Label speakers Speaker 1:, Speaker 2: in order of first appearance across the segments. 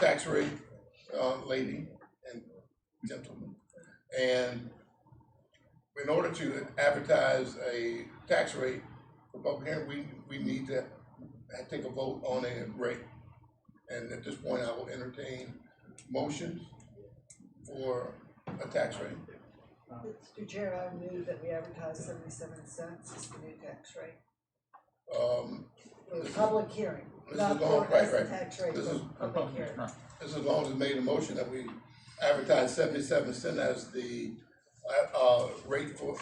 Speaker 1: tax rate, uh, lady and gentleman. And in order to advertise a tax rate for public hearing, we, we need to take a vote on a rate. And at this point, I will entertain motions for a tax rate.
Speaker 2: Mr. Chair, I move that we advertise seventy-seven cents as the new tax rate
Speaker 1: Um,
Speaker 2: for the public hearing,
Speaker 1: This is
Speaker 2: not
Speaker 1: all-
Speaker 2: for
Speaker 1: right,
Speaker 2: as the
Speaker 1: right.
Speaker 2: tax rate
Speaker 1: This
Speaker 2: for
Speaker 1: is-
Speaker 2: public hearing.
Speaker 1: This is long as made a motion that we advertise seventy-seven cent as the, uh, uh, rate for,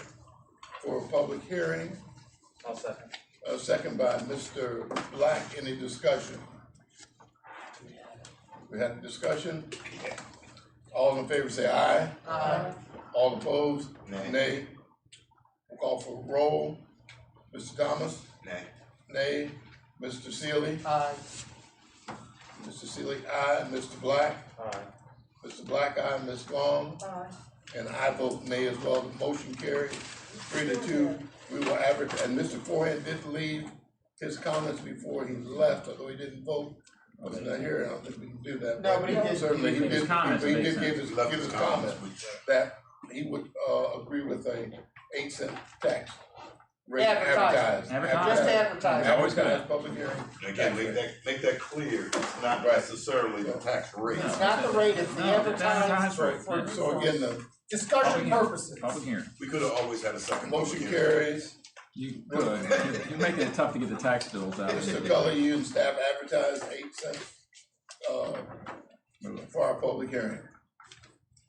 Speaker 1: for a public hearing.
Speaker 3: I'll second.
Speaker 1: A Uh, second by Mr. Black, any discussion? We had a discussion? All in favor say aye.
Speaker 2: Aye.
Speaker 1: All opposed?
Speaker 4: Nay.
Speaker 1: Nay. We'll Call for roll. Mr. Thomas?
Speaker 4: Nay.
Speaker 1: Nay. Mr. Sealy?
Speaker 2: Aye.
Speaker 1: Mr. Sealy, aye. Mr. Black?
Speaker 3: Aye.
Speaker 1: Mr. Black, aye. Ms. Long?
Speaker 2: Aye.
Speaker 1: And I vote nay as well, the motion carries. Three to two, we will average, and Mr. Forehand did leave his comments before he left, although he didn't vote. I was not here, I don't think we can do that.
Speaker 5: No, but he did-
Speaker 1: Certainly, he
Speaker 5: his
Speaker 1: did, he
Speaker 5: comments
Speaker 1: did
Speaker 5: made
Speaker 1: give
Speaker 5: sense.
Speaker 1: his, give his comments that he would, uh, agree with a eight cent tax. rate
Speaker 5: Advertising.
Speaker 1: Advertised.
Speaker 5: Just
Speaker 1: Advertised.
Speaker 5: advertising.
Speaker 1: Advertised, public hearing.
Speaker 4: Again, make that, make that clear, it's not
Speaker 1: Right.
Speaker 4: necessarily the tax rate.
Speaker 5: It's not the rate, it's the
Speaker 6: No, it's
Speaker 5: advertising for,
Speaker 6: advertising
Speaker 5: for
Speaker 6: rate.
Speaker 1: So again, the
Speaker 5: discussion purposes.
Speaker 6: Public hearing.
Speaker 4: We could have always had a second.
Speaker 1: motion
Speaker 4: public hearing.
Speaker 1: carries,
Speaker 6: You could. You're- You're making it tough to get the tax bills out.
Speaker 1: Mr. Gully, you and staff advertised eight cents, uh,
Speaker 6: Move
Speaker 1: for our public hearing.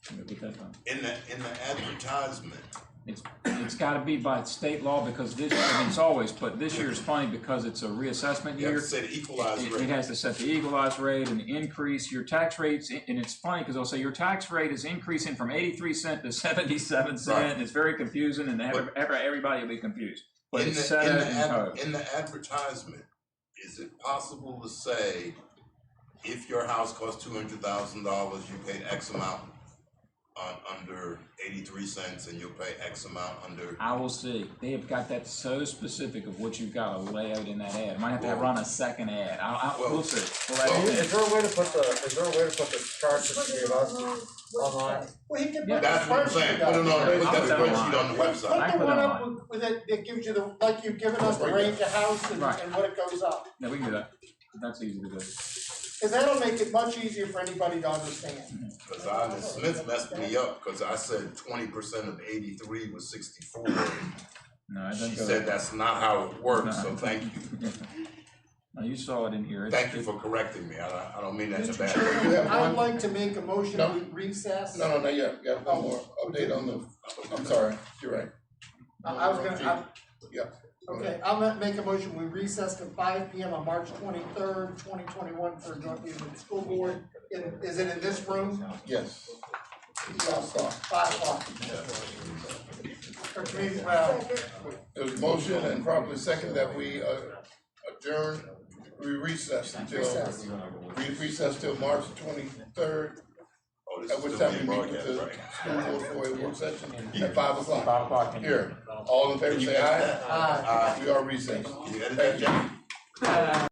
Speaker 6: it. Get that done.
Speaker 4: In the, in the advertisement,
Speaker 6: It's, it's gotta be by state law because this, I mean, it's always, but this year is funny because it's a reassessment
Speaker 4: you have
Speaker 6: year.
Speaker 4: to say the equalized
Speaker 6: It, it
Speaker 4: rate.
Speaker 6: has to set the equalized rate and increase your tax rates, and it's funny, cause they'll say your tax rate is increasing from eighty-three cent to seventy-seven
Speaker 4: Right.
Speaker 6: cent, and it's very confusing, and every, every- everybody will be confused. But
Speaker 4: In
Speaker 6: it's
Speaker 4: the,
Speaker 6: set
Speaker 4: in
Speaker 6: out
Speaker 4: the,
Speaker 6: in
Speaker 4: ad-
Speaker 6: code.
Speaker 4: in the advertisement, is it possible to say, if your house costs two hundred thousand dollars, you paid X amount on, under eighty-three cents, and you'll pay X amount under,
Speaker 6: I will see. They have got that so specific of what you've got to lay out in that ad. Might have to
Speaker 4: Well-
Speaker 6: run a second ad. I, I,
Speaker 4: Well-
Speaker 6: we'll see. We'll
Speaker 4: well,
Speaker 6: add it in.
Speaker 3: Is there a way to put the, is there a way to put the charts that you gave us online?
Speaker 5: Well, he can put the
Speaker 4: that's what I'm
Speaker 5: spreadsheet
Speaker 4: saying, put it on,
Speaker 5: up.
Speaker 4: put that
Speaker 6: I'll-
Speaker 4: spreadsheet on the
Speaker 5: Put,
Speaker 4: website.
Speaker 6: I
Speaker 5: put
Speaker 6: put
Speaker 5: the
Speaker 6: it
Speaker 5: one up
Speaker 6: online.
Speaker 5: with- with it, that gives you the, like you've given us the range of house and,
Speaker 6: Right.
Speaker 5: and what it goes up.
Speaker 6: Yeah, we can do that. That's easy to do.
Speaker 5: Cause that'll make it much easier for anybody to understand.
Speaker 4: Cause I, Ms. Smith messed me up, cause I said twenty percent of eighty-three was sixty-four.
Speaker 6: No, I don't
Speaker 4: She
Speaker 6: go.
Speaker 4: said that's not how it works, so
Speaker 6: No.
Speaker 4: thank you,
Speaker 6: No, you saw it in here. It's-
Speaker 4: thank you for correcting me, I, don't- I don't mean that in a bad way.
Speaker 1: You have
Speaker 5: Chairman, I'd
Speaker 1: one-
Speaker 5: like to make a motion
Speaker 1: No.
Speaker 5: to recess.
Speaker 1: No, no, not yet, we have one more update on the, I'm sorry, you're right.
Speaker 5: I I was gonna, I,
Speaker 1: Yeah.
Speaker 5: Okay, I'll ma- make a motion, we recess to five P M on March twenty-third, twenty twenty-one for a joint meeting with the school board. In- Is it in this room?
Speaker 1: Yes.
Speaker 5: Five o'clock. Or community, well,
Speaker 1: There's a motion and probably second that we uh, adjourn, we recess until,
Speaker 5: recess.
Speaker 1: we recess till March twenty-third,
Speaker 4: Oh, this
Speaker 1: at
Speaker 4: is
Speaker 1: which
Speaker 4: still
Speaker 1: time we
Speaker 4: being
Speaker 1: meet with
Speaker 4: broadcast,
Speaker 1: the
Speaker 4: right?
Speaker 1: school board for a work session at five o'clock.
Speaker 3: o'clock.
Speaker 1: Here, all in favor
Speaker 4: Can you
Speaker 1: say
Speaker 4: edit
Speaker 1: aye,
Speaker 5: uh,
Speaker 4: that?
Speaker 5: Aye.
Speaker 4: Aye.
Speaker 1: we are recessed.
Speaker 4: Can you edit that, Jeff?